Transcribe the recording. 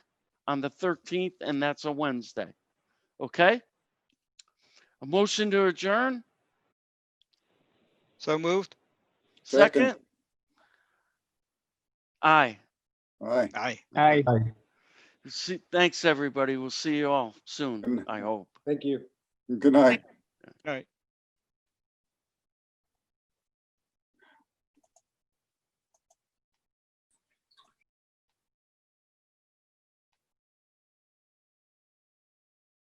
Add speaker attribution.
Speaker 1: on the 13th, and that's a Wednesday. Okay? A motion to adjourn?
Speaker 2: So moved?
Speaker 3: Second.
Speaker 1: Second? Aye.
Speaker 3: All right.
Speaker 2: Aye.
Speaker 4: Aye.
Speaker 1: See, thanks, everybody. We'll see you all soon, I hope.
Speaker 5: Thank you.
Speaker 3: Good night.